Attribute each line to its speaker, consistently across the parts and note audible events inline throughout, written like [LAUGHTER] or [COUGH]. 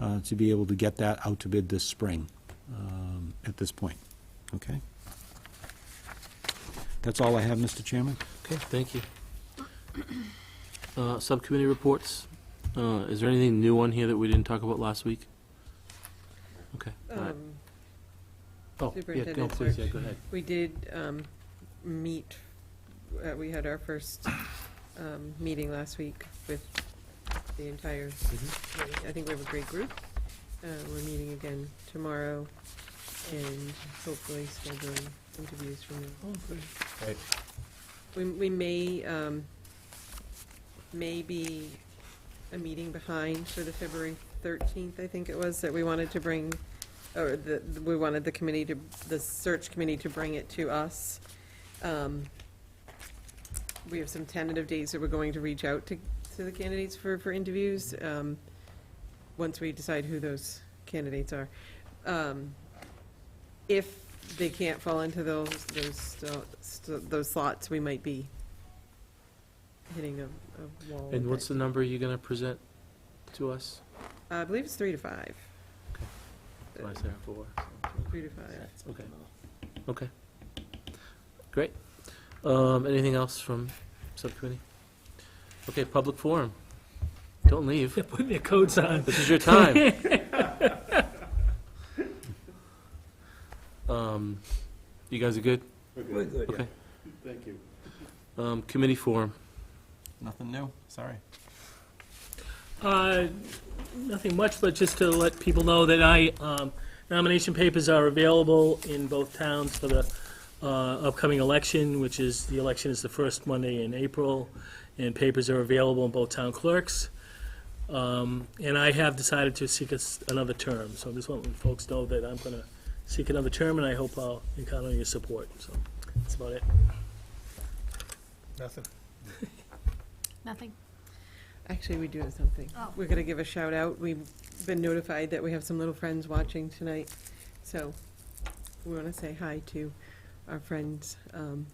Speaker 1: uh, to be able to get that out to bid this spring um, at this point. Okay? That's all I have, Mr. Chairman.
Speaker 2: Okay, thank you. Uh, Subcommittee reports. Uh, Is there anything new on here that we didn't talk about last week? Okay. all right.
Speaker 3: Um,
Speaker 2: Oh, yeah, go,
Speaker 3: Superintendent
Speaker 2: please, yeah,
Speaker 3: search.
Speaker 2: go ahead.
Speaker 3: We did um, meet, uh, we had our first um, meeting last week with the entire,
Speaker 2: Mm-hmm.
Speaker 3: I think we have a great group. Uh, We're meeting again tomorrow and hopefully scheduling interviews from there.
Speaker 2: Oh, Right.
Speaker 3: We, we may, um, may be a meeting behind for the February thirteenth, I think it was, that we wanted to bring, or the, we wanted the committee to, the search committee to bring it to us. Um, We have some tentative dates that we're going to reach out to, to the candidates for, for interviews, um, once we decide who those candidates are. Um, If they can't fall into those, those, sto- sto- those slots, we might be hitting a, a wall.
Speaker 2: And what's the
Speaker 3: type.
Speaker 2: number you're going to present to us?
Speaker 3: Uh, I believe it's three to five. Uh,
Speaker 2: Do I say four?
Speaker 3: Three to five.
Speaker 2: Okay. Okay. Great. Um, Anything else from subcommittee? Okay, public forum. Don't leave.
Speaker 4: Put your coats on.
Speaker 2: This is your [LAUGHS] time. Um, You guys are good?
Speaker 5: We're good.
Speaker 2: Okay. Thank you. Um, committee forum.
Speaker 5: Nothing new, sorry.
Speaker 4: Uh, Nothing much, but just to let people know that I, um, nomination papers are available in both towns for the uh, upcoming election, which is, the election is the first Monday in April, and papers are available in both town clerks. Um, And I have decided to seek a s- another term, so I just want folks to know that I'm going to seek another term, and I hope I'll encounter your support, so that's about it.
Speaker 6: Nothing.
Speaker 3: Actually, we do have something.
Speaker 6: Oh.
Speaker 3: We're gonna give a shout out. We've been notified that we have some little friends watching tonight. So we wanna say hi to our friends, um,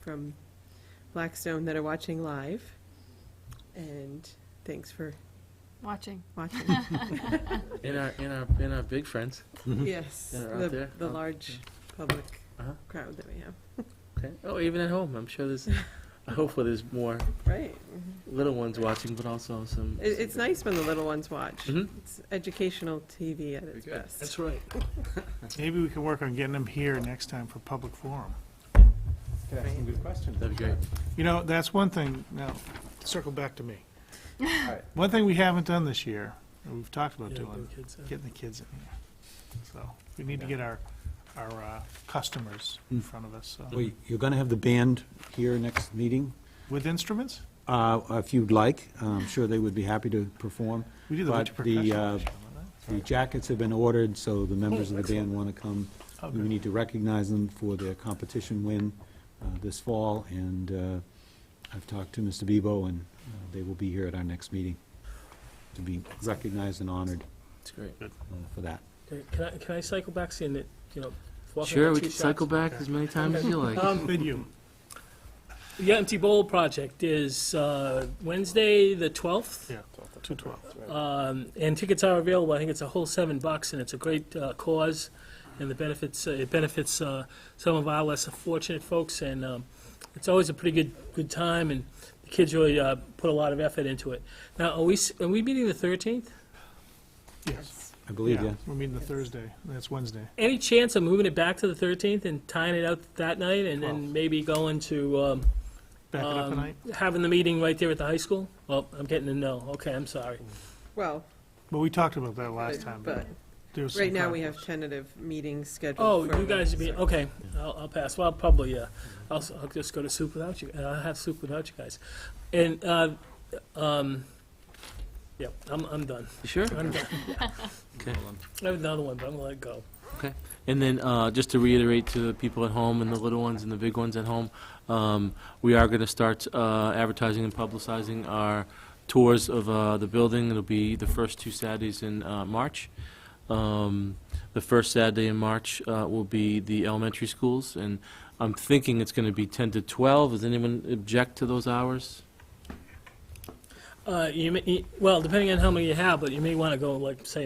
Speaker 3: from Blackstone that are watching live. And thanks for
Speaker 6: Watching.
Speaker 2: [LAUGHS]
Speaker 3: watching.
Speaker 2: In our, in our, in our big friends.
Speaker 3: Yes,
Speaker 2: Yeah, they're out
Speaker 3: the,
Speaker 2: there.
Speaker 3: the
Speaker 2: Oh,
Speaker 3: large public
Speaker 2: Uh-huh.
Speaker 3: crowd that we have.
Speaker 2: Okay. Oh, even at home, I'm sure there's, hopefully there's more
Speaker 3: Right.
Speaker 2: little ones watching, but also some.
Speaker 3: It, it's nice when the little ones watch.
Speaker 2: Mhm.
Speaker 4: Mm-hmm.
Speaker 3: It's educational TV at its
Speaker 2: Very good.
Speaker 3: best.
Speaker 4: That's right.
Speaker 7: Maybe we could work on getting them here next time for public forum.
Speaker 5: Could ask some good questions.
Speaker 2: That'd be great.
Speaker 7: You know, that's one thing, now, circle back
Speaker 1: [LAUGHS]
Speaker 7: to me.
Speaker 5: Alright.
Speaker 7: One thing we haven't done this year, and we've talked about
Speaker 4: Yeah,
Speaker 7: doing,
Speaker 4: good kids, uh,
Speaker 7: getting the kids in here. So, we need to get our, our uh, customers in
Speaker 1: Hmm.
Speaker 7: front of us, so.
Speaker 1: Well, You're going to have the band here next meeting,
Speaker 7: With instruments?
Speaker 1: uh, if you'd like. I'm sure they would be happy to perform.
Speaker 7: We do the
Speaker 1: But
Speaker 7: winter percussion.
Speaker 1: the, uh,
Speaker 7: last year, remember that?
Speaker 1: The jackets have been ordered, so the members of the band want to come.
Speaker 7: Oh,
Speaker 1: We
Speaker 7: good.
Speaker 1: need to recognize them for their competition win uh, this fall, and uh, I've talked to Mr. Bebo, and uh, they will be here at our next meeting to be recognized and honored
Speaker 2: It's great.
Speaker 1: uh, for that.
Speaker 4: Can I, can I cycle back, seeing that, you know? walk
Speaker 2: Sure,
Speaker 4: over
Speaker 2: we
Speaker 4: two
Speaker 2: can cycle
Speaker 4: shots?
Speaker 2: back as many times as you like.
Speaker 4: Um,
Speaker 7: Then you,
Speaker 4: The Empty Bowl Project is uh, Wednesday, the 12th,
Speaker 7: yeah, two twelve. Uh,
Speaker 4: um, and tickets are available. I think it's a whole seven bucks, and it's a great uh, cause, and the benefits, uh, it benefits uh, some of our less fortunate folks, and um, it's always a pretty good, good time, and the kids really uh, put a lot of effort into it. Now, are we, s- are we meeting the 13th?
Speaker 7: Yes.
Speaker 1: I believe you.
Speaker 7: We're meeting the Thursday, that's Wednesday.
Speaker 4: Any chance of moving it back to the 13th and tying it out that night, and then maybe going to um,
Speaker 7: Back it up a
Speaker 4: Um,
Speaker 7: night.
Speaker 4: having the meeting right there at the high school? Well, I'm getting a no. Okay, I'm sorry.
Speaker 3: Well,
Speaker 7: But we talked about that last time.
Speaker 3: but
Speaker 7: there was some
Speaker 3: right now we have
Speaker 7: conflicts.
Speaker 3: tentative meetings scheduled.
Speaker 4: Oh,
Speaker 3: for
Speaker 4: you guys,
Speaker 3: Wednesday.
Speaker 4: be okay, I'll, I'll pass. Well, probably, yeah. I'll, s- I'll just go to soup without you, and I'll have soup without you guys. And, uh, um, yeah, I'm, I'm done.
Speaker 2: You Sure?
Speaker 4: I'm done.
Speaker 2: Okay.
Speaker 4: I have another one, but I'm gonna let it go.
Speaker 2: And then, uh, just to reiterate to the people at home and the little ones and the big ones at home, um, we are gonna start, uh, advertising and publicizing our tours of, uh, the building. It'll be the first two Saturdays in, uh, March. Um, the first Saturday in March, uh, will be the elementary schools, and I'm thinking it's gonna be ten to twelve. Does anyone object to those hours?
Speaker 4: Uh, you may, you- well, depending on how many you have, but you may wanna go, like, say,